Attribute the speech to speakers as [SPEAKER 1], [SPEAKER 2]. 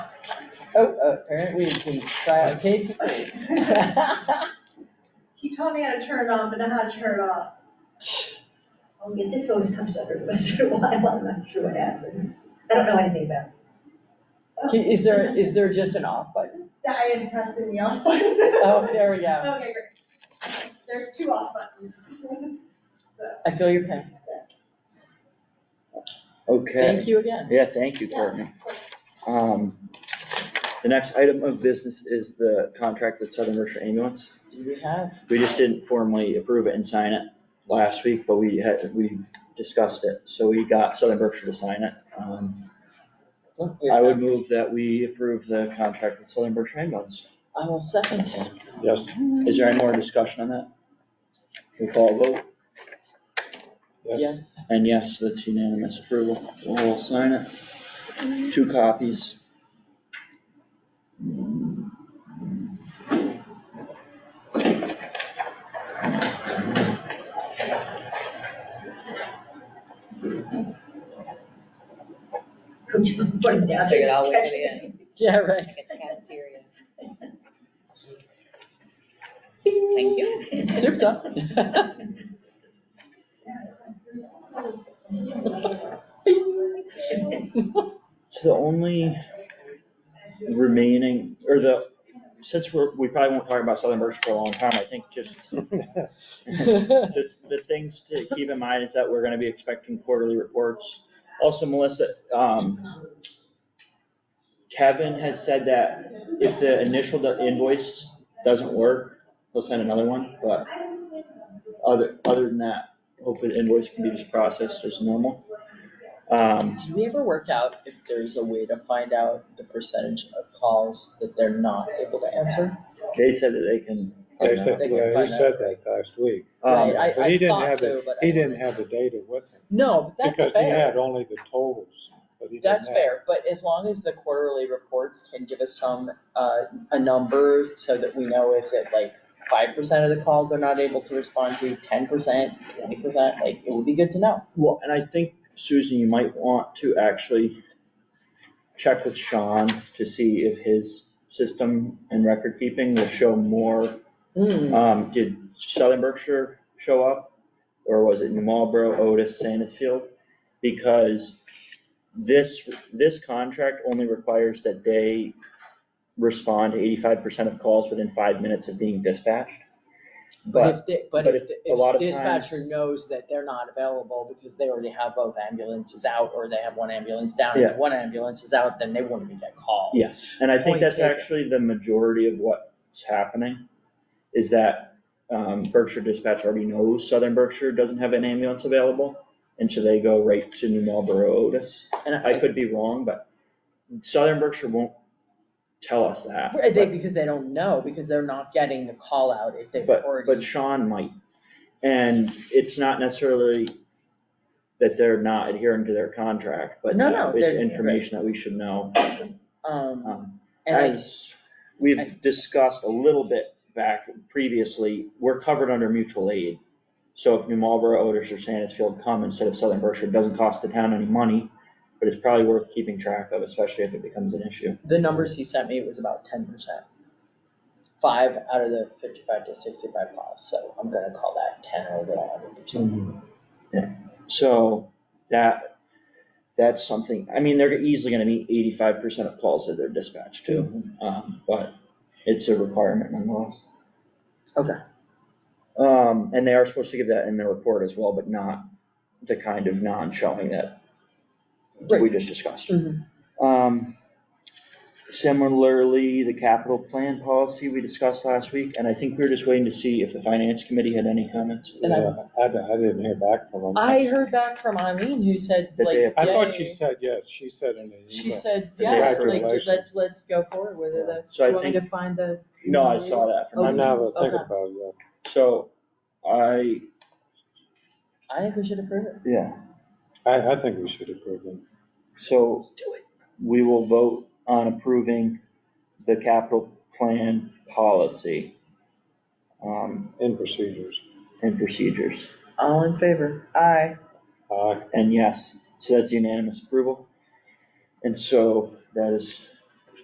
[SPEAKER 1] Oh, apparently we can try out cake.
[SPEAKER 2] He taught me how to turn it on, but not how to turn it off.
[SPEAKER 3] Oh, yeah, this always comes up every once in a while, I'm not sure what happens. I don't know anything about
[SPEAKER 1] Is there, is there just an off button?
[SPEAKER 2] I am pressing the off button.
[SPEAKER 1] Oh, there we go.
[SPEAKER 2] Okay, great. There's two off buttons. So,
[SPEAKER 1] I feel your pain.
[SPEAKER 4] Okay,
[SPEAKER 1] Thank you again.
[SPEAKER 4] yeah, thank you, Courtney. Um, The next item of business is the contract with Southern Berkshire Ambulance.
[SPEAKER 1] Do we have?
[SPEAKER 4] We just didn't formally approve it and sign it last week, but we had, we discussed it, so we got Southern Berkshire to sign it. Um,
[SPEAKER 1] look, we
[SPEAKER 4] I would
[SPEAKER 1] have-
[SPEAKER 4] move that we approve the contract with Southern Berkshire Ambulance.
[SPEAKER 1] I will second that.
[SPEAKER 4] Yes. Is there any more discussion on that? We call a vote,
[SPEAKER 1] Yes.
[SPEAKER 4] and yes, that's unanimous approval, we'll sign it. Two copies.
[SPEAKER 3] Could you put it down?
[SPEAKER 5] Stick it all the way to the end.
[SPEAKER 1] Yeah, right.
[SPEAKER 5] Like it's cafeteria. Thank you.
[SPEAKER 1] Soup's up.
[SPEAKER 4] So the only remaining, or the, since we're, we probably won't talk about Southern Berkshire for a long time, I think just the, the things to keep in mind is that we're gonna be expecting quarterly reports. Also, Melissa, um, Kevin has said that if the initial invoice doesn't work, he'll send another one, but other, other than that, hopefully the invoice can be just processed as normal. Um,
[SPEAKER 1] Did we ever work out if there's a way to find out the percentage of calls that they're not able to answer?
[SPEAKER 4] They said that they can.
[SPEAKER 6] They said,
[SPEAKER 1] They can
[SPEAKER 6] yeah, he
[SPEAKER 1] find out.
[SPEAKER 6] said that last week.
[SPEAKER 1] Right,
[SPEAKER 4] Um,
[SPEAKER 1] I,
[SPEAKER 6] but
[SPEAKER 1] I
[SPEAKER 6] he didn't
[SPEAKER 1] thought
[SPEAKER 6] have
[SPEAKER 1] so,
[SPEAKER 6] it-
[SPEAKER 1] but. I
[SPEAKER 6] He didn't
[SPEAKER 1] wasn't-
[SPEAKER 6] have the data with him.
[SPEAKER 1] No, but that's
[SPEAKER 6] Because he
[SPEAKER 1] fair.
[SPEAKER 6] had only the totals, but he didn't have.
[SPEAKER 1] That's fair, but as long as the quarterly reports can give us some, uh, a number so that we know if it's like five percent of the calls they're not able to respond to, ten percent, twenty percent, like, it would be good to know.
[SPEAKER 4] Well, and I think, Susan, you might want to actually check with Sean to see if his system and record keeping will show more.
[SPEAKER 1] Hmm,
[SPEAKER 4] Um, did Southern Berkshire show up? Or was it New Marlboro, Otis, Sanesfield? Because this, this contract only requires that they respond to eighty-five percent of calls within five minutes of being dispatched.
[SPEAKER 1] But
[SPEAKER 4] But
[SPEAKER 1] if they, but
[SPEAKER 4] but
[SPEAKER 1] if, the-
[SPEAKER 4] a lot
[SPEAKER 1] if
[SPEAKER 4] of
[SPEAKER 1] dispatcher
[SPEAKER 4] times-
[SPEAKER 1] knows that they're not available because they already have both ambulances out or they have one ambulance down
[SPEAKER 4] Yeah.
[SPEAKER 1] and one ambulance is out, then they wouldn't be get called.
[SPEAKER 4] Yes, and I think
[SPEAKER 1] Point
[SPEAKER 4] that's
[SPEAKER 1] taken.
[SPEAKER 4] actually the majority of what's happening, is that um, Berkshire Dispatch already knows Southern Berkshire doesn't have an ambulance available, and so they go right to New Marlboro Otis.
[SPEAKER 1] And
[SPEAKER 4] I could be wrong, but Southern Berkshire won't tell us that.
[SPEAKER 1] Right, They, because they don't know, because they're not getting the call out if they've
[SPEAKER 4] But,
[SPEAKER 1] already.
[SPEAKER 4] but Sean might, and it's not necessarily that they're not adhering to their contract, but
[SPEAKER 1] No, no,
[SPEAKER 4] it's
[SPEAKER 1] they're-
[SPEAKER 4] information that we should know.
[SPEAKER 1] Um,
[SPEAKER 4] Um,
[SPEAKER 1] and I
[SPEAKER 4] As we've discussed a little bit back previously, we're covered under mutual aid. So if New Marlboro, Otis, or Sanesfield come instead of Southern Berkshire, it doesn't cost the town any money, but it's probably worth keeping track of, especially if it becomes an issue.
[SPEAKER 1] The numbers he sent me was about ten percent. Five out of the fifty-five to sixty-five miles, so I'm gonna call that ten or the hundred percent.
[SPEAKER 4] Yeah, so that, that's something, I mean, they're easily gonna meet eighty-five percent of calls that they're dispatched to,
[SPEAKER 1] Mm-hmm.
[SPEAKER 4] um, but it's a requirement nonetheless.
[SPEAKER 1] Okay.
[SPEAKER 4] Um, and they are supposed to give that in the report as well, but not the kind of non-showing that we just discussed.
[SPEAKER 1] Mhm.
[SPEAKER 4] Um, similarly, the capital plan policy we discussed last week, and I think we were just waiting to see if the finance committee had any comments.
[SPEAKER 1] And I-
[SPEAKER 6] Yeah, I, d- I didn't hear back from him.
[SPEAKER 1] I heard back from Eileen who said
[SPEAKER 4] That
[SPEAKER 1] like,
[SPEAKER 4] they-
[SPEAKER 6] I thought
[SPEAKER 1] yay.
[SPEAKER 6] she said yes, she said in the email.
[SPEAKER 1] She said,
[SPEAKER 4] That they
[SPEAKER 1] yeah,
[SPEAKER 4] approved.
[SPEAKER 1] like, let's, let's go forward with it. Uh, Do
[SPEAKER 4] So I
[SPEAKER 1] you want me to
[SPEAKER 4] think-
[SPEAKER 1] find the?
[SPEAKER 4] No, I saw that from.
[SPEAKER 6] I
[SPEAKER 4] Eileen.
[SPEAKER 6] never think
[SPEAKER 1] Okay.
[SPEAKER 6] about it,
[SPEAKER 4] So I,
[SPEAKER 1] I think we should approve it.
[SPEAKER 4] yeah,
[SPEAKER 6] I, I think we should approve him.
[SPEAKER 4] so
[SPEAKER 1] Let's do it.
[SPEAKER 4] we will vote on approving the capital plan policy um,
[SPEAKER 6] in procedures.
[SPEAKER 4] and procedures.
[SPEAKER 1] All in favor? Aye.
[SPEAKER 6] Aye.
[SPEAKER 4] And yes, so that's unanimous approval. And so that is